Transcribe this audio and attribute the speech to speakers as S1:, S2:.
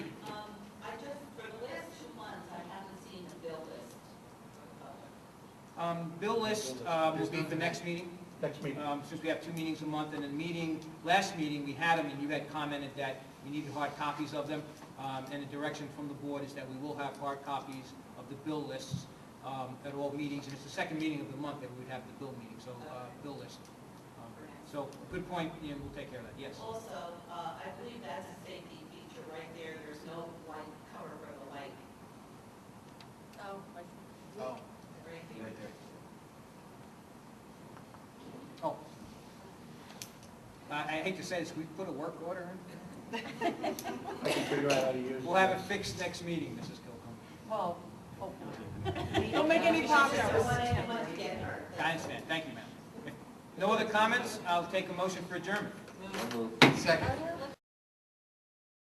S1: Um,
S2: Um, Bill list uh, will be at the next meeting,
S3: Next meeting.
S2: um, since we have two meetings a month, and the meeting, last meeting, we had them, and you had commented that you needed hard copies of them, um, and the direction from the board is that we will have hard copies of the bill lists um, at all meetings, and it's the second meeting of the month that we would have the bill meeting, so uh, bill list. Um, So, good point, Ian, we'll take care of that, yes.
S1: Also, uh, I believe that's a safety feature right there, there's no light cover for the light,
S4: Oh,
S5: Oh,
S1: right here.
S5: right there.
S2: Oh. I I hate to say this, we put a work order in?
S3: I can figure out how to use it.
S2: We'll have it fixed next meeting, Mrs. Kilcombe.
S4: well, oh, don't make any
S1: It's just a
S4: progress.
S1: one and a month get her.
S2: I understand, thank you, ma'am. No other comments? I'll take a motion for adjournment.
S5: Second.